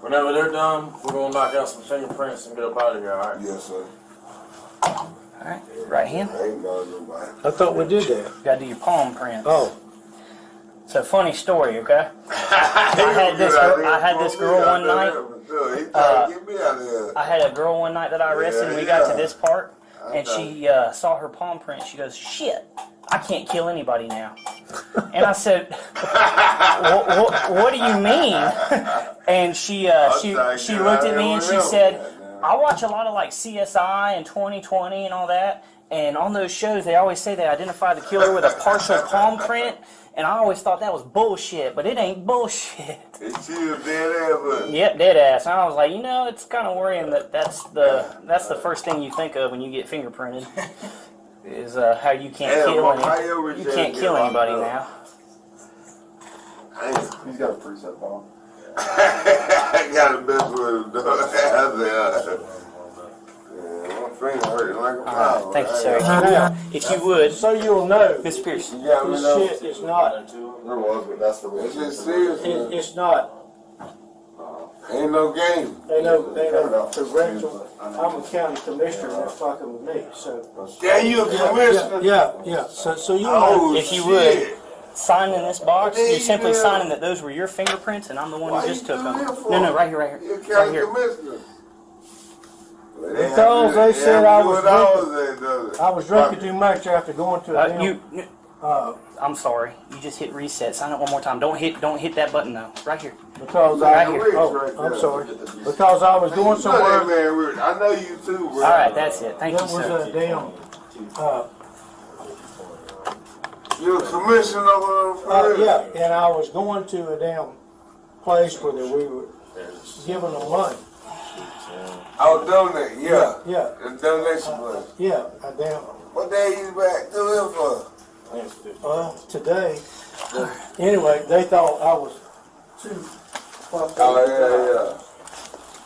Whenever they're done, we're gonna knock out some fingerprints and get up out of here, alright? Yes, sir. Alright, right hand. I ain't bothering nobody. I thought we did that. You gotta do your palm prints. Oh, It's a funny story, okay? I had this girl, I had this girl one night. He tried uh, to get me out of there. I had a girl one night that I arrested. We got to this part, and she uh, saw her palm print. She goes, "Shit, I can't kill anybody now." And I said, "What, what, what do you mean?" And she uh, she she looked at me and she said, "I watch a lot of like CSI and 2020 and all that." And on those shows, they always say they identify the killer with a partial palm print. And I always thought that was bullshit, but it ain't bullshit. It's you dead ass. Yep, dead ass. And I was like, you know, it's kind of worrying that that's the that's the first thing you think of when you get fingerprinted is uh, how you can't Yeah, kill well, any, my ear you was can't just kill getting anybody locked now. up. I ain't- He's got a preset phone. I got a best with him, dog. I said, uh, yeah, my finger hurting like a All power. right, thank you, sir. If you Yeah. would, if you would, so you'll know Miss Pierce. You got me this though? shit is not. There was, but that's the way. It's just it- serious, man. It's not. Ain't no game. They know. They know. The rectal. I'm a county commissioner. and They're fucking with me. So. Damn, you a commissioner? Yeah. Yeah. So so you Oh, If you shit. Sign in this box. There You're you simply go. signing that those were your fingerprints, and I'm the one Why who you just took do them. that for? No, no, right here, right You here, right county here. commissioner. Because they said I was was. I was drinking too much after going to a Uh, damn. you, n- uh, I'm sorry. You just hit reset. Sign it one more time. Don't hit, don't hit that button though. Right here. because I. Right here. Oh, I'm sorry. Because I was going somewhere. Man, I know you too, bro. All right, that's it. Thank That you, was sir. a damn. Uh, You a commissioner of Uh, yeah, and I was going to a damn place where that we were giving them money. I'll donate, yeah. Yeah, The donation money. yeah, a damn, What day you back to him for? well, today, anyway, they thought I was too fucked up. Oh,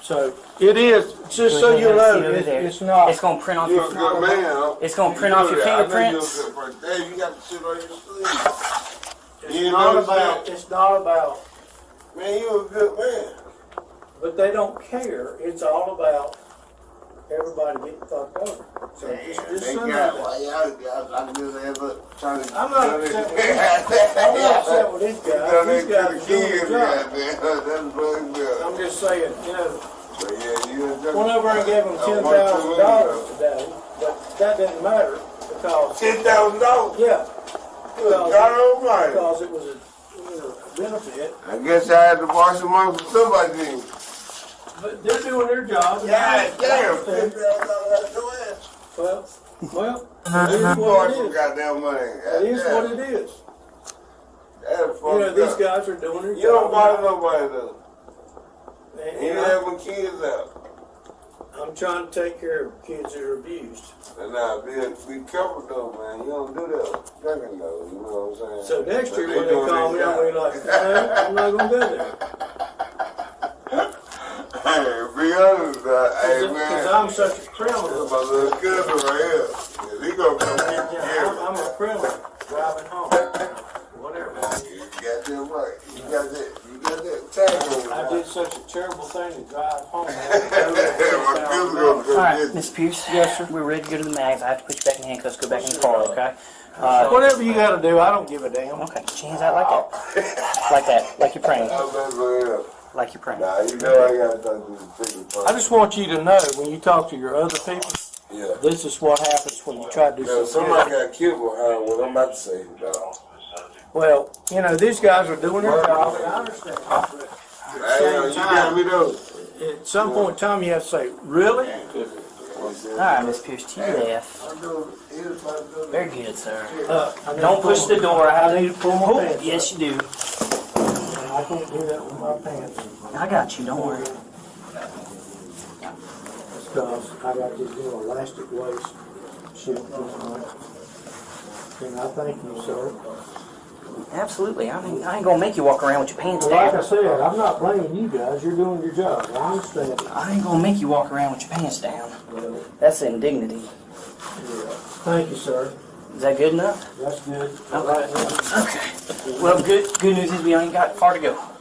So, it is, just so you know, it's, it's It's not, gonna print yeah, off yeah. You your. a good man, huh? It's gonna You print off know your that. I know you a fingerprints. good person. Dave, you got the shit on your sleeve. You it's know not what I'm about, it's not about, Man, you a good man. but they don't care, it's all about everybody getting fucked over. So just- Thank just send God. that. Why y'all guys, I just ever trying to. I'm not upset with I'm not upset with this guy, Donate these to the guys are doing kids, their job. goddamn. That's fucking good. I'm just saying, you know, But yeah, you a good- went over and gave him I ten want to thousand look at dollars today, but that didn't matter because, Ten thousand dollars. yeah, God because, Almighty. because it was a, you know, a benefit. I guess I had to wash them off with somebody. then. But they're doing their job. and God damn. that's Ten fair. thousand dollars. Go ahead. Well, well, it You is bought what it some is. goddamn money. It is what it is. That's You know, fucked these up. guys are doing their job. You don't bother nobody though. And- You ain't and I- having kids out. I'm trying to take care of kids that are abused. And now, be, be careful though, man. You don't do that. Drinking though, you know what I'm saying? So next year But when they doing call me, their I'm gonna job. be like, no, I'm not gonna go there. Hey, be honest, uh, hey Because man. I'm such a This is criminal. my little cousin right here. Yeah, he gonna come get you. Yeah, I'm, I'm a criminal driving home. Whatever. You got that right. You got that. You got that tag over I there. did such a terrible thing to drive home. My cousin gonna All come right, get you. Miss Pierce. Yes, sir. We're ready to go to the mags. I have to put you back in handcuffs. Go back in the car, okay? Uh, Whatever you gotta do, I don't give a damn. okay. She hands out like that, like that, like you're praying, I'm just like, like you're praying. Nah, you know I gotta talk to the bigger I person. just want you to know, when you talk to your other people, Yeah. this is what happens when you try to do Now, something. somebody got killed behind what I'm about to say, dog. Well, you know, these guys are doing their job, and I understand. but Hey, yo, you got me though. At some point in time, you have to say, really? All right, Miss Pierce, to your left. I'm doing, he was about to do Very good, sir. Uh, I need to Don't push pull- the door. I I need to pull my Oh, pants. yes, you do. I can't do that with my pants. I got you. Don't worry. Because I got this little elastic waist shit going on. And I thank you, sir. Absolutely. I mean, I ain't gonna make you walk around with your pants Well, like I down. said, I'm not blaming you guys, you're doing your job, I understand. I ain't gonna make you walk around with your pants down. That's indignity. Thank you, sir, Is that good enough? that's good. Okay. Well, good good news is we ain't got far to go.